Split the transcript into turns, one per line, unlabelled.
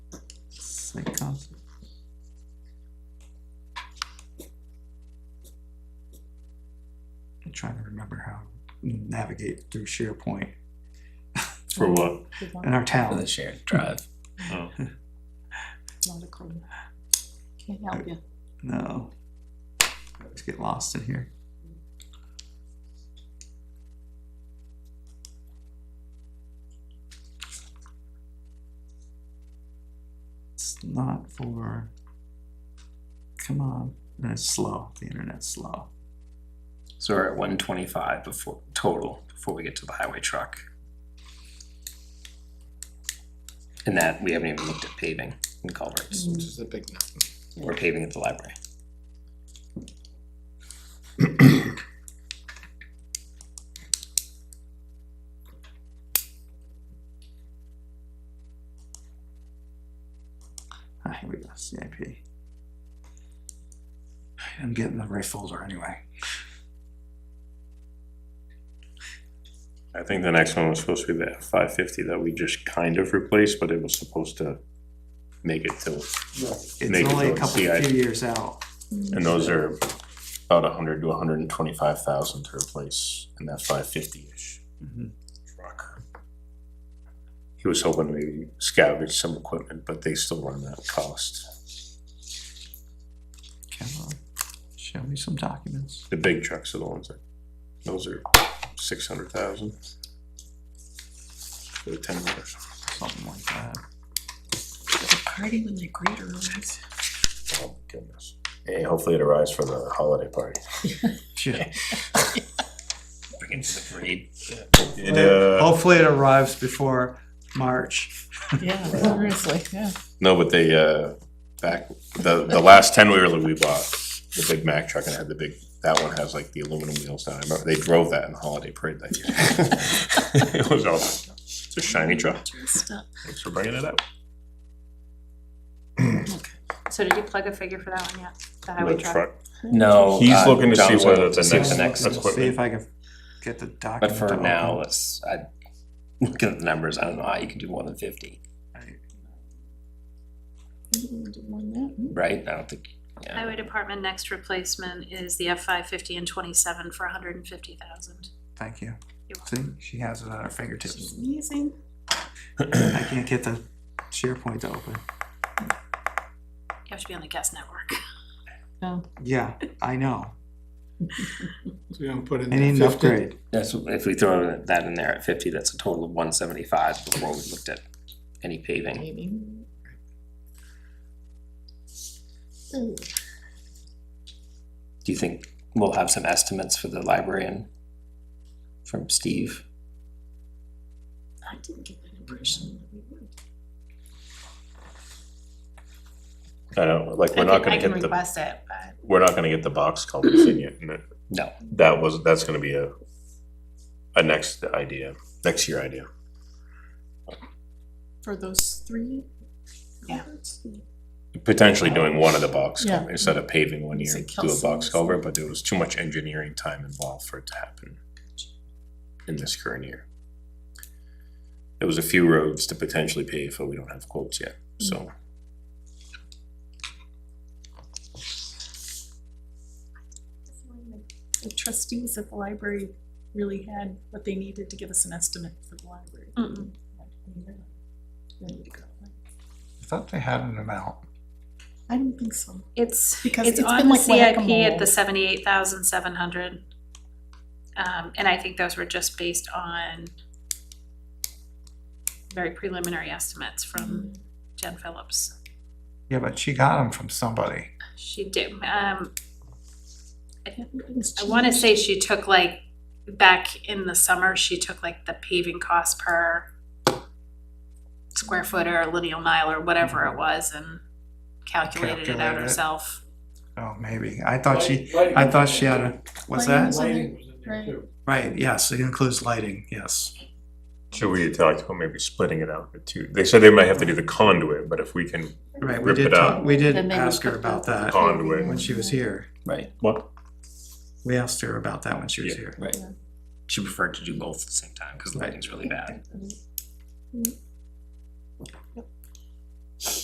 site council. I'm trying to remember how to navigate through SharePoint
For what?
in our
For the
town.
shared drive.
Oh,
Not a clue. Can't help you.
No. I always get lost in here. It's not for. Come on, it's slow. The internet's slow.
So we're at one twenty-five before, total, before we get to the highway truck. And that, we haven't even looked at paving and culverts.
which is a big no.
We're paving at the library.
Ah, here we go, CIP. I'm getting the right folder anyway.
I think the next one was supposed to be the F five fifty that we just kind of replaced, but it was supposed to make it till, Make
It's
it
only a
go
couple,
CIP.
few years out.
Mm.
and those are about a hundred to a hundred and twenty-five thousand to replace in that five fifty-ish
Mhm.
truck. He was hoping we salvage some equipment, but they still run that cost.
Come on, show me some documents.
The big trucks are the ones that, those are six hundred thousand. For the ten wheelers.
Something like that.
Party when they greet her, right?
Oh, goodness. Hey, hopefully it arrives for the holiday party.
Shit.
Bring it to the parade.
It, uh,
Hopefully it arrives before March.
Yeah, seriously, yeah.
no, but they, uh, back, the, the last ten wheeler we bought, the big Mack truck and it had the big, that one has like the aluminum wheels now. I remember they drove that in the holiday parade that year. It was awesome. It's a shiny truck.
Dressed up.
Thanks for bringing it up.
So did you plug a figure for that one yet? The
The
highway truck?
truck.
No.
He's
uh,
looking to see
John's
whether the
looking to see
next-
what
next-
is.
See if I can get the
But
document.
for
to open.
now, let's, I, looking at the numbers, I don't know how you can do more than fifty,
Mm, do one now. Mm.
right? I don't think, yeah.
Highway department next replacement is the F five fifty and twenty-seven for hundred and fifty thousand.
Thank you.
You're
See, she has it at her fingertips.
Amazing.
I can't get the SharePoint to open.
You have to be on the guest network.
Oh,
Yeah, I know.
So we don't put in
I need an
that fifty.
upgrade.
That's, if we throw that in there at fifty, that's a total of one seventy-five before we looked at any paving.
maybe. Ooh,
Do you think we'll have some estimates for the librarian from Steve?
I didn't get that impression that we would.
I don't, like, we're not gonna get the,
request it, but.
we're not gonna get the box culverts in yet. and that-
No,
That was, that's gonna be a, a next idea, next year idea.
For those three?
Yeah.
culverts?
potentially doing one of the box
Yeah.
culvert, instead of paving one
It's
year,
like
do a box
Kelsey's.
culvert, but there was too much engineering time involved for it to happen in this current year. There was a few roads to potentially pave, but we don't have quotes yet,
Mm.
so.
The trustees at the library really had what they needed to give us an estimate for the library.
Mm-mm.
Ready to go.
I thought they had an amount.
I don't think so.
It's,
Because
it's
it's
on
been
the
like
CIP
whack-a-mole.
at the seventy-eight thousand seven hundred. Um, and I think those were just based on very preliminary estimates from Jen Phillips.
Yeah, but she got them from somebody.
She did, um,
Everything's
I wanna
changed.
say she took like, back in the summer, she took like the paving cost per square foot or lineal mile or whatever it was and calculated it out
Calculated it.
herself.
Oh, maybe. I thought she, I thought she had a, what's that?
Lighting.
Lighting was in there
Right.
too.
Right, yes, it includes lighting, yes.
Should we talk about maybe splitting it out into two? They said they might have to do the conduit, but if we can.
Right, we
Rip
did,
it
talk-
out.
we did
Then they would
ask her
put
about
the-
that
Conduit.
when she was here.
right,
What?
We asked her about that when she was
Yeah.
here.
right. She preferred to do both at the same time, cause lighting's really bad.
Mm. Mm.